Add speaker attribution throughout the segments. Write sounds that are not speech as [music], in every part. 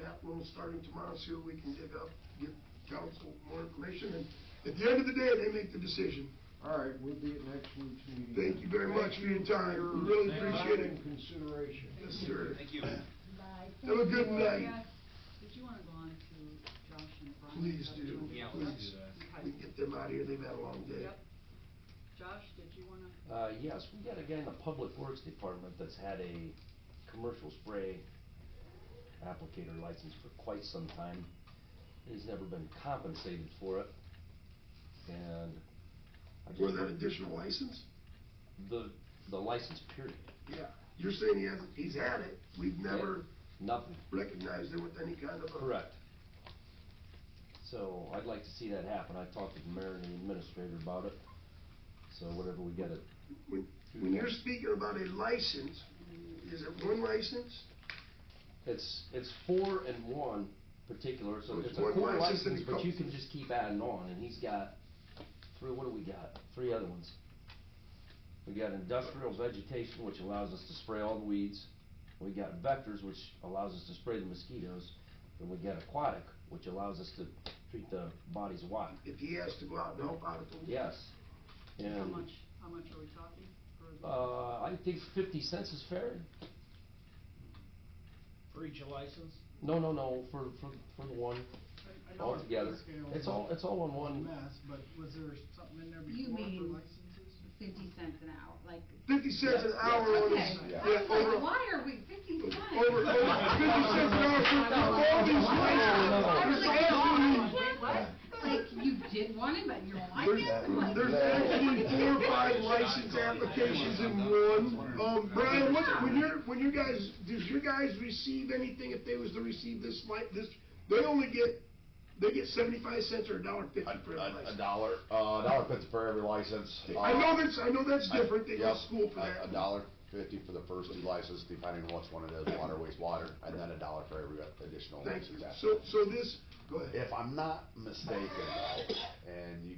Speaker 1: that loan starting tomorrow, see what we can dig up, give council more information, and at the end of the day, they make the decision.
Speaker 2: All right, we'll be at next week's meeting.
Speaker 1: Thank you very much for your time. We really
Speaker 2: Thank you.
Speaker 1: appreciate it.
Speaker 2: Time and consideration.
Speaker 1: Yes, sir.
Speaker 3: Thank you.
Speaker 4: Bye.
Speaker 1: Have a good night.
Speaker 5: Yeah, Did you want to go on to Josh and Brian?
Speaker 1: Please do,
Speaker 3: Yeah, let's
Speaker 1: please.
Speaker 3: do that.
Speaker 1: We can get them out of here, they've had a long day.
Speaker 5: Yep. Josh, did you want to?
Speaker 6: Uh, yes, we got a guy in the Public Works Department that's had a commercial spray applicator license for quite some time. He's never been compensated for it, and. I just
Speaker 1: For that
Speaker 6: wondered-
Speaker 1: additional license?
Speaker 6: The, the license period,
Speaker 1: Yeah. You're saying he hasn't, he's had it, we've never
Speaker 6: nothing,
Speaker 1: recognized it with any kind of a.
Speaker 6: correct. So I'd like to see that happen, I talked to the mayor and the administrator about it, so whatever we get it,
Speaker 1: When, when you're speaking about a license, is it one license?
Speaker 6: It's, it's four and one particular,
Speaker 1: So
Speaker 6: so
Speaker 1: it's
Speaker 6: it's a
Speaker 1: one
Speaker 6: core
Speaker 1: license and
Speaker 6: license,
Speaker 1: it
Speaker 6: but you
Speaker 1: comes-
Speaker 6: can just keep adding on, and he's got, three, what do we got? Three other ones. We got industrial vegetation, which allows us to spray all the weeds. We got vectors, which allows us to spray the mosquitoes. And we got aquatic, which allows us to treat the bodies of water.
Speaker 1: If he has to go out and help out at the.
Speaker 6: Yes.
Speaker 5: How
Speaker 6: And,
Speaker 5: much, how much are we talking? for the-
Speaker 6: uh, I think fifty cents is fair.
Speaker 3: For each license?
Speaker 6: No, no, no, for, for, for the one,
Speaker 7: I- I know
Speaker 6: all
Speaker 7: it's
Speaker 6: together.
Speaker 7: scale
Speaker 6: It's all, it's all on
Speaker 7: a
Speaker 6: one.
Speaker 7: Mess, but was there something in there
Speaker 4: You
Speaker 7: before for
Speaker 4: mean-
Speaker 7: licenses?
Speaker 4: Fifty cents an hour, like,
Speaker 1: Fifty cents an
Speaker 6: Yes,
Speaker 1: hour
Speaker 6: yes.
Speaker 1: on
Speaker 4: okay,
Speaker 1: his.
Speaker 4: I
Speaker 1: yeah,
Speaker 4: was
Speaker 1: over-
Speaker 4: like, why are we fifty cents?
Speaker 1: Over, over, fifty cents an hour for all these
Speaker 4: I
Speaker 1: licenses.
Speaker 4: was
Speaker 1: It's
Speaker 4: like,
Speaker 1: all
Speaker 4: "Oh,
Speaker 1: these-
Speaker 4: wait, what?" Like, you did want it, but you're like it, like.
Speaker 1: There's actually four or five license applications in one. Um, Brian, what, when you're, when you guys, does your guys receive anything if they was to receive this li- this, they only get, they get seventy-five cents or a dollar fifty
Speaker 8: A-
Speaker 1: for a
Speaker 8: A, a
Speaker 1: license?
Speaker 8: dollar, uh, a dollar fifty for every license.
Speaker 1: I
Speaker 8: Uh,
Speaker 1: know that's, I know that's
Speaker 8: I-
Speaker 1: different, they go
Speaker 8: yep,
Speaker 1: to school for
Speaker 8: a-
Speaker 1: that.
Speaker 8: A dollar fifty for the first two licenses, depending on which one it is, water, wastewater, and then a dollar for every additional
Speaker 1: Thank you.
Speaker 8: license. after
Speaker 1: So,
Speaker 8: that.
Speaker 1: so this, go ahead.
Speaker 8: If I'm not mistaken, though, and you,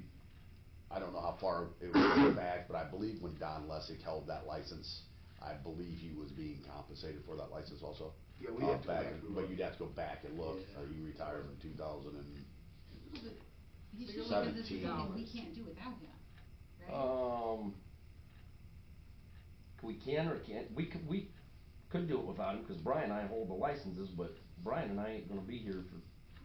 Speaker 8: I don't know how far it was back, but I believe when Don Lessig held that license, I believe he was being compensated for that license also.
Speaker 1: Yeah, we
Speaker 8: Uh,
Speaker 1: have to go
Speaker 8: back-
Speaker 1: back and
Speaker 8: But
Speaker 1: look.
Speaker 8: you'd have to go back and look,
Speaker 1: Yeah.
Speaker 8: uh, you retired in two thousand and
Speaker 4: He should look at this
Speaker 8: Seventeen
Speaker 4: because we
Speaker 6: dollars.
Speaker 4: can't do without him, right?
Speaker 6: Um, we can or can't, we could, we could do it without him, cause Brian and I hold the licenses, but Brian and I ain't gonna be here for.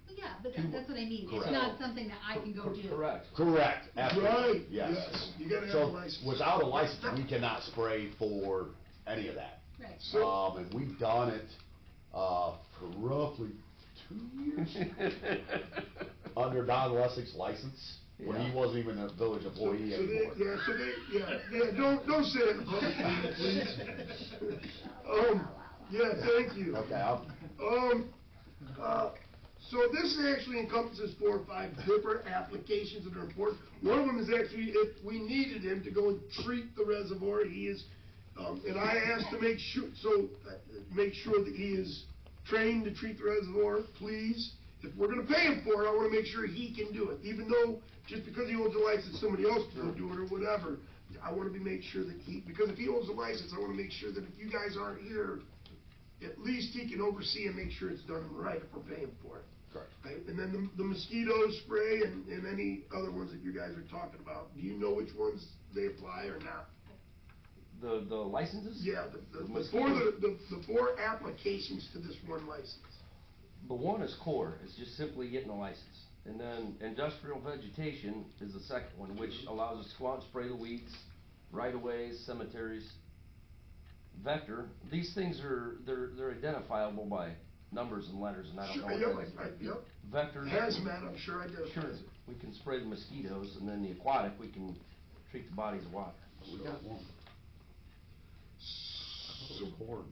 Speaker 4: Well, Yeah, but
Speaker 6: Two-
Speaker 4: that- that's what I mean, it's
Speaker 8: Correct.
Speaker 4: not something that I can go
Speaker 6: Cor-
Speaker 4: do.
Speaker 6: Correct.
Speaker 8: Correct. absolutely,
Speaker 1: Right, yes.
Speaker 8: Yes.
Speaker 1: You gotta have
Speaker 8: So
Speaker 1: a license.
Speaker 8: Without a license, we cannot spray for any of that.
Speaker 4: Right.
Speaker 1: So-
Speaker 8: Um, and we've done it, uh, for roughly two
Speaker 1: [laughs]
Speaker 8: years under Don Lessig's license, when he
Speaker 6: Yeah.
Speaker 8: wasn't even a village employee
Speaker 1: So they,
Speaker 8: anymore.
Speaker 1: yeah, so they, yeah, yeah, don't, don't say
Speaker 8: [laughs]
Speaker 1: it in public, please. Um, yeah, thank you.
Speaker 8: Okay, I'll,
Speaker 1: Um, uh, so this actually encompasses four or five different applications that are important. One of them is actually, if we needed him to go and treat the reservoir, he is, um, and I asked to make sure, so, uh, make sure that he is trained to treat the reservoir, please. If we're gonna pay him for it, I wanna make sure he can do it, even though, just because he owns a license, somebody else can do it or whatever. I wanna be, make sure that he, because if he owns a license, I wanna make sure that if you guys aren't here, at least he can oversee and make sure it's done right if we're paying for it.
Speaker 8: correct.
Speaker 1: Right? And then the- the mosquito spray and, and any other ones that you guys are talking about, do you know which ones they apply or not?
Speaker 6: The, the licenses?
Speaker 1: Yeah, the, the, the four,
Speaker 6: mosquitoes-
Speaker 1: the, the four applications to this one license.
Speaker 6: The one is core, it's just simply getting a license. And then industrial vegetation is the second one, which allows us to go out and spray the weeds, right of ways, cemeteries. Vector, these things are, they're, they're identifiable by numbers and letters and I don't
Speaker 1: Sure,
Speaker 6: know what
Speaker 1: yep, I-
Speaker 6: that is.
Speaker 1: yep.
Speaker 6: Vector.
Speaker 1: Hazmat, I'm sure I did.
Speaker 6: Sure, we can spray the mosquitoes and then the aquatic, we can treat the bodies of water.
Speaker 8: We got one. So horn.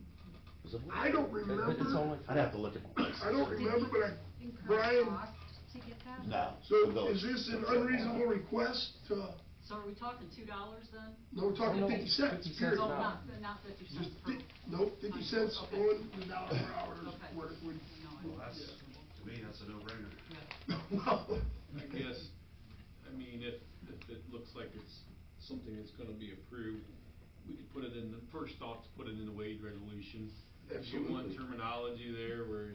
Speaker 8: Is it horn?
Speaker 1: I don't
Speaker 6: But- but it's
Speaker 1: remember,
Speaker 6: only for-
Speaker 8: I'd have to look at the license.
Speaker 1: I don't remember, but I,
Speaker 4: Incur
Speaker 1: Brian-
Speaker 4: cost to get that?
Speaker 8: No. the
Speaker 1: so
Speaker 8: village.
Speaker 1: is this an unreasonable request to,
Speaker 5: So are we talking two dollars then?
Speaker 1: no, we're talking
Speaker 6: No,
Speaker 1: fifty cents,
Speaker 6: 50
Speaker 1: period.
Speaker 6: cents.
Speaker 5: No,
Speaker 6: no.
Speaker 5: not, not fifty
Speaker 1: Just,
Speaker 5: cents per.
Speaker 1: fi- nope, fifty cents
Speaker 5: Okay.
Speaker 1: on the dollar per hour is
Speaker 5: Okay.
Speaker 1: what it would [laughs]
Speaker 5: No, I-
Speaker 3: Well, that's, to me, that's a no-brainer.
Speaker 1: Well,
Speaker 9: I guess, I mean, if, if it looks like it's something that's gonna be approved, we could put it in, the first off, to put it in the wage resolution. Get
Speaker 1: Absolutely.
Speaker 9: one terminology there where